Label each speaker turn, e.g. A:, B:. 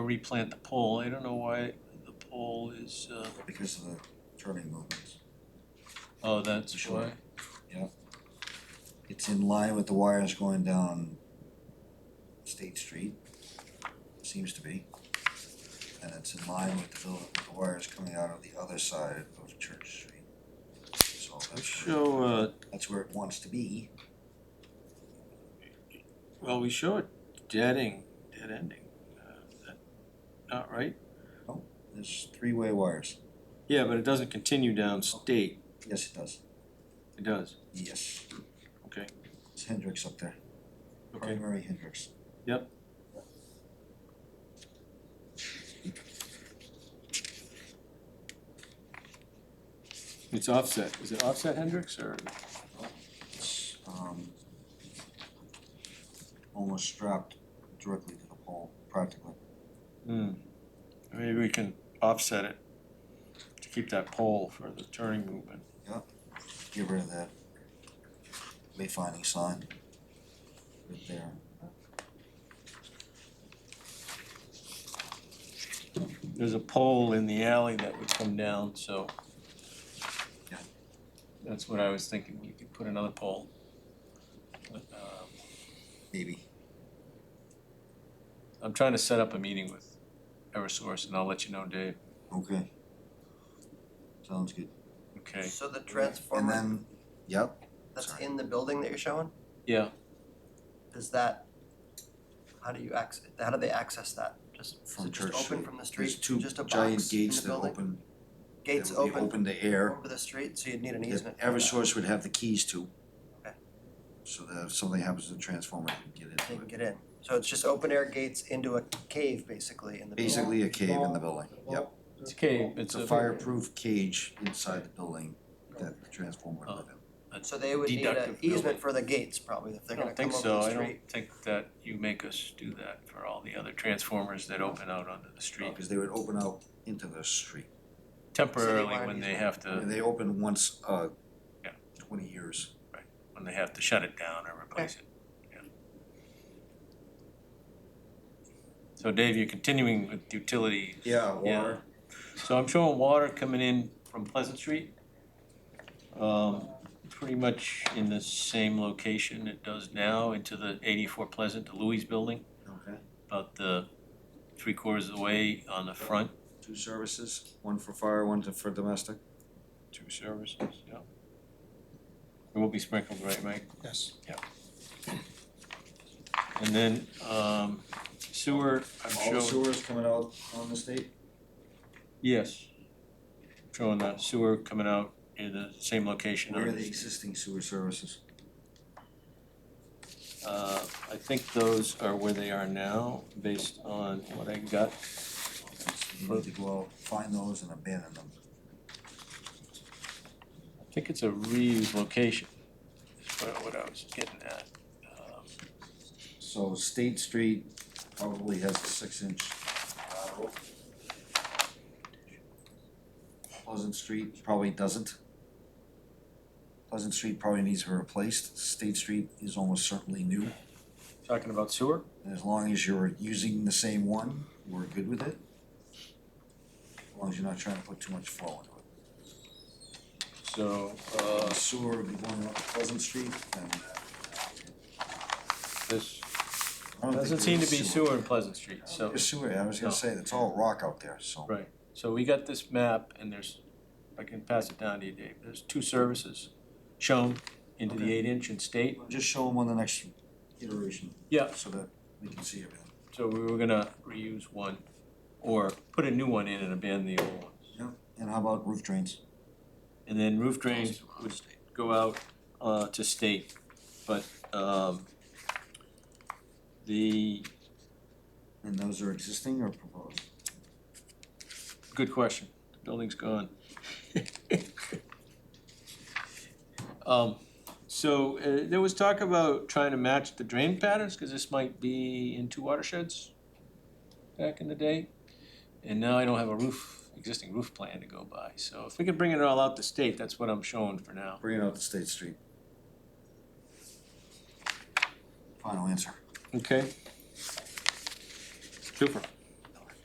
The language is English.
A: replant the pole, I don't know why the pole is, uh,
B: because of the turning movements.
A: oh, that's
B: Sure.
A: why.
B: It's in line with the wires going down State Street, seems to be. And it's in line with the building, with the wires coming out of the other side of Church Street. So that's where,
A: Show, uh,
B: that's where it wants to be.
A: well, we show it deading, dead ending, uh, is that not right?
B: There's three-way wires.
A: Yeah, but it doesn't continue down state,
B: Yes, it does.
A: it does,
B: Yes.
A: okay,
B: It's Hendrix up there,
A: okay.
B: primary Hendrix.
A: It's offset, is it offset Hendrix or?
B: It's, um, almost strapped directly to the pole, practically.
A: Hmm, maybe we can offset it to keep that pole for the turning movement.
B: Get rid of that wayfinding sign right there.
A: There's a pole in the alley that would come down, so.
B: Yeah.
A: That's what I was thinking, we could put another pole. But, um,
B: Maybe.
A: I'm trying to set up a meeting with Eversource and I'll let you know, Dave,
B: Okay. Sounds good.
A: okay?
C: So the
B: And
C: transformer
B: then, yep,
C: that's
B: sorry.
C: in the building that you're showing,
A: Yeah,
C: is that, how do you access, how do they access that? Just, is
B: From
C: it just
B: Church
C: open
B: Street.
C: from the street,
B: there's two
C: just a
B: giant
C: box in
B: gates
C: the
B: that
C: building?
B: open, that
C: Gates
B: would be
C: open
B: open to air.
C: over the street, so you'd need an
B: that
C: easement for that.
B: Eversource would have the keys to.
C: Okay.
B: So that if something happens to the transformer, you can get
C: They
B: into
C: can
B: it.
C: get in. So it's just open air gates into a cave basically in the building.
B: Basically a cave in the building, yep.
A: it's a cave, it's
B: It's
A: a.
B: a fireproof cage inside the building that the transformer would live in.
C: So they would need an
A: Deductive building.
C: easement for the gates probably if
A: I
C: they're gonna
A: don't
C: come
A: think
C: over
A: so,
C: the
A: I
C: street.
A: don't think that you make us do that for all the other transformers that open out onto the street
B: Because they would open out into the street.
A: temporarily
C: Citywide
A: when they
C: easement.
A: have to.
B: And they open once, uh,
A: Yeah.
B: twenty years.
A: when they have to shut it down or replace it. Yeah. So Dave, you're continuing with utility,
B: Yeah,
A: water. so I'm showing water coming in from Pleasant Street. Um, pretty much in the same location it does now into the eighty-four Pleasant, the Louis Building,
B: Okay,
A: about the three quarters of the way on the front.
B: two services, one for fire, one to- for domestic.
A: Two services, yeah. It will be sprinkled, right, Mike?
D: Yes.
A: And then, um, sewer, I'm
B: All the
A: showing.
B: sewers coming out on the state?
A: Yes. Showing that sewer coming out in the same location.
B: Where are the existing sewer services?
A: Uh, I think those are where they are now, based on what I got.
B: You need to go out, find those and abandon them.
A: I think it's a reuse location, is what- what I was getting at. Um,
B: So State Street probably has a six inch lateral. Pleasant Street probably doesn't. Pleasant Street probably needs to be replaced, State Street is almost certainly new,
A: Talking about sewer?
B: and as long as you're using the same one, we're good with it. As long as you're not trying to put too much flow into it.
A: So,
B: Uh,
A: uh,
B: sewer would be going up Pleasant Street and.
A: this
B: I don't think
A: doesn't seem to
B: there's
A: be sewer in Pleasant Street, so.
B: There's sewer, I was gonna
A: No.
B: say, it's all rock out there, so.
A: Right. So we got this map and there's, if I can pass it down to you, Dave, there's two services shown into the
B: Okay.
A: eight inch in state.
B: Just show them on the next iteration.
A: Yeah.
B: So that we can see everything.
A: So we were gonna reuse one or put a new one in and abandon the old ones.
B: And how about roof drains?
A: And then roof drains would go out uh to state, but um the,
B: And those are existing or proposed?
A: good question, the building's gone. Um so uh there was talk about trying to match the drain patterns, cause this might be in two watersheds back in the day. And now I don't have a roof, existing roof plan to go by, so if we could bring it all out to state, that's what I'm showing for now.
B: Bringing out the State Street. Final answer.
A: Okay. Super.